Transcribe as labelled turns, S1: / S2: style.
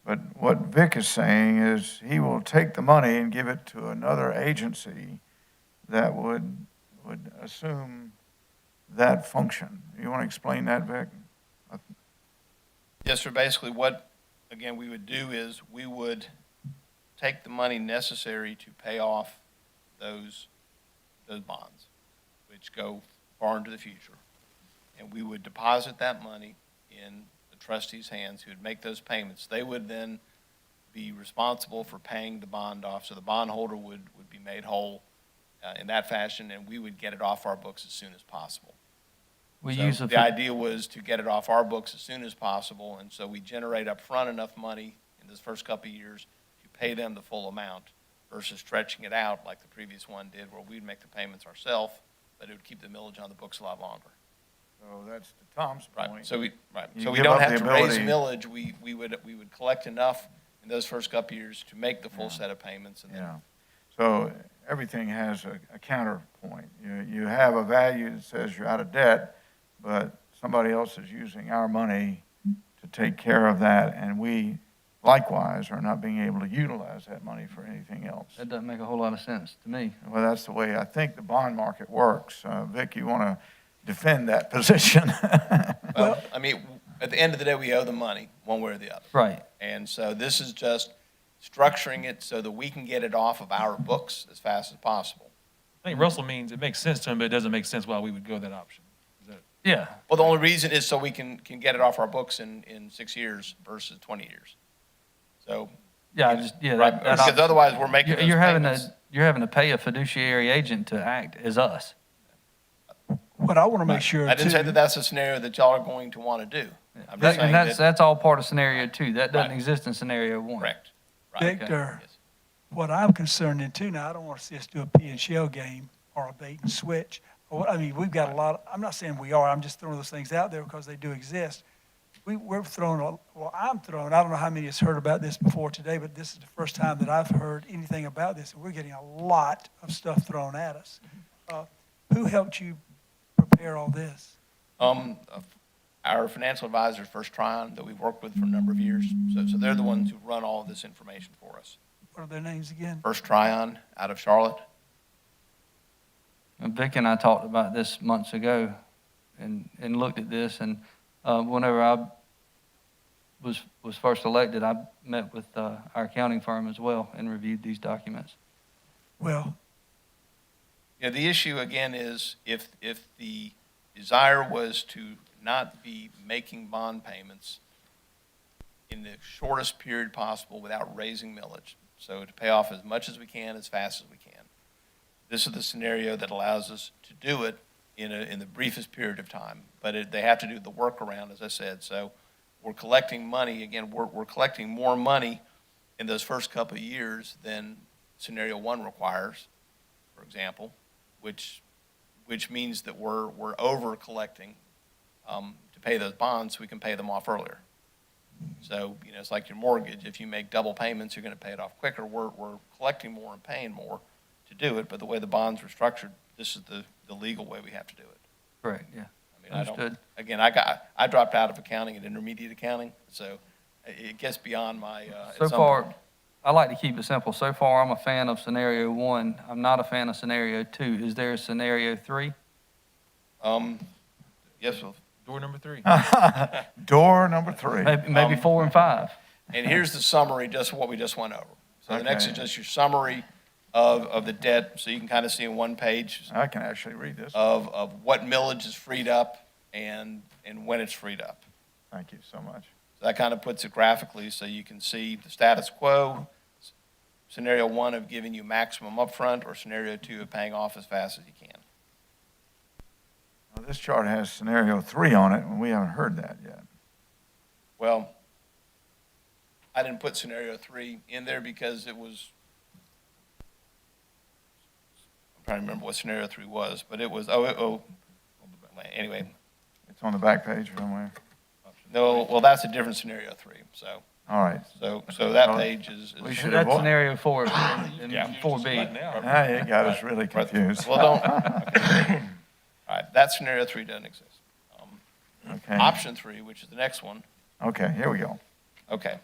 S1: Vic is saying is he will take the money and give it to another agency that would, would assume that function. You want to explain that, Vic?
S2: Yes, sir. Basically, what, again, we would do is we would take the money necessary to pay off those, those bonds, which go far into the future. And we would deposit that money in the trustees' hands who would make those payments. They would then be responsible for paying the bond off. So the bondholder would, would be made whole uh, in that fashion, and we would get it off our books as soon as possible.
S3: We
S2: So
S3: use a,
S2: The
S3: fi-
S2: idea was to get it off our books as soon as possible, and so we generate upfront enough money in this first couple of years to pay them the full amount versus stretching it out like the previous one did, where we'd make the payments ourselves, but it would keep the millage on the books a lot longer.
S1: So that's to Tom's
S2: Right,
S1: point.
S2: so we, right,
S1: You
S2: so we
S1: give
S2: don't
S1: up
S2: have
S1: the
S2: to raise
S1: ability-
S2: millage, we, we would, we would collect enough in those first couple of years to make the full set of payments, and then,
S1: Yeah. So everything has a, a counterpoint. You, you have a value that says you're out of debt, but somebody else is using our money to take care of that, and we likewise are not being able to utilize that money for anything else.
S3: that doesn't make a whole lot of sense to me.
S1: Well, that's the way I think the bond market works. Uh, Vic, you want to defend that position?
S2: well, I mean, at the end of the day, we owe the money, one way or the other.
S3: Right.
S2: And so this is just structuring it so that we can get it off of our books as fast as possible.
S4: I think Russell means it makes sense to him, but it doesn't make sense why we would go that option.
S3: Yeah.
S2: Well, the only reason is so we can, can get it off our books in, in six years versus 20 years. So,
S3: Yeah. I just, yeah.
S2: right,
S3: that- that
S2: because
S3: op-
S2: otherwise we're making
S3: you're,
S2: those
S3: you're having
S2: payments.
S3: to you're having to pay a fiduciary agent to act as us.
S5: What I want to make sure
S2: I didn't say
S5: too-
S2: that that's a scenario that y'all are going to want to do. I'm
S3: That-
S2: just saying
S3: and that's
S2: that,
S3: that's all part of scenario two. That doesn't
S2: Right.
S3: exist in scenario one.
S2: correct. Right.
S5: Victor,
S2: Yes.
S5: what I'm concerned in too, now, I don't want to see us do a P and shell game or a bait and switch. Or what- I mean, we've got a lot, I'm not saying we are, I'm just throwing those things out there because they do exist. We, we're throwing, a- well, I'm throwing, I don't know how many has heard about this before today, but this is the first time that I've heard anything about this. And we're getting a lot of stuff thrown at us.
S2: Mm-hmm.
S5: Uh, Who helped you prepare all this?
S2: Um, our financial advisors, First Tryon, that we've worked with for a number of years, so, so they're the ones who run all of this information for us.
S5: What are their names again?
S2: First Tryon out of Charlotte,
S3: And Vic and I talked about this months ago, and and looked at this, and uh, whenever I was was first elected, I met with uh, our accounting firm as well and reviewed these documents.
S5: Well,
S2: Yeah, the issue again is if, if the desire was to not be making bond payments in the shortest period possible without raising millage, so to pay off as much as we can, as fast as we can. This is the scenario that allows us to do it in a, in the briefest period of time. But it, they have to do the workaround, as I said, so we're collecting money, again, we're, we're collecting more money in those first couple of years than scenario one requires, for example, which, which means that we're, we're over collecting um, to pay those bonds, so we can pay them off earlier. So, you know, it's like your mortgage, if you make double payments, you're gonna pay it off quicker, we're, we're collecting more and paying more to do it, but the way the bonds were structured, this is the, the legal way we have to do it.
S3: Correct. Yeah.
S2: I mean, I don't,
S3: Understood.
S2: again, I got, I dropped out of accounting and intermediate accounting, so it- it gets beyond my, uh. at
S3: So
S2: some
S3: far,
S2: point.
S3: I like to keep it simple. So far, I'm a fan of scenario one. I'm not a fan of scenario two. Is there a scenario three?
S2: Um, yes, well,
S4: Door number three.
S1: Door number three.
S3: Maybe, maybe
S2: Um,
S3: four and five.
S2: And here's the summary, just what we just went over. So the next is
S1: Okay.
S2: just your summary of, of the debt, so you can kind of see in one page
S1: I can actually read this.
S2: of, of what millage is freed up and, and when it's freed up.
S1: Thank you so much.
S2: So that kind of puts it graphically, so you can see the status quo, scenario one of giving you maximum upfront, or scenario two of paying off as fast as you can.
S1: Now, This chart has scenario three on it, and we haven't heard that yet.
S2: Well, I didn't put scenario three in there because it was, I'm trying to remember what scenario three was, but it was, oh, it- oh, anyway,
S1: It's on the back page somewhere.
S2: no, well, that's a different scenario three, so,
S1: All right.
S2: so, so that
S1: Well,
S2: page is. is-
S1: we should-
S3: That's
S1: avoid-
S3: scenario four and
S2: Yeah.
S3: four B.
S4: Right now.
S1: Now you got us really
S2: Right.
S1: confused.
S2: Well, don't, okay. all right, that scenario three doesn't exist. Um,
S1: Okay.
S2: Option three, which is the next one,
S1: Okay, here we go.
S2: okay,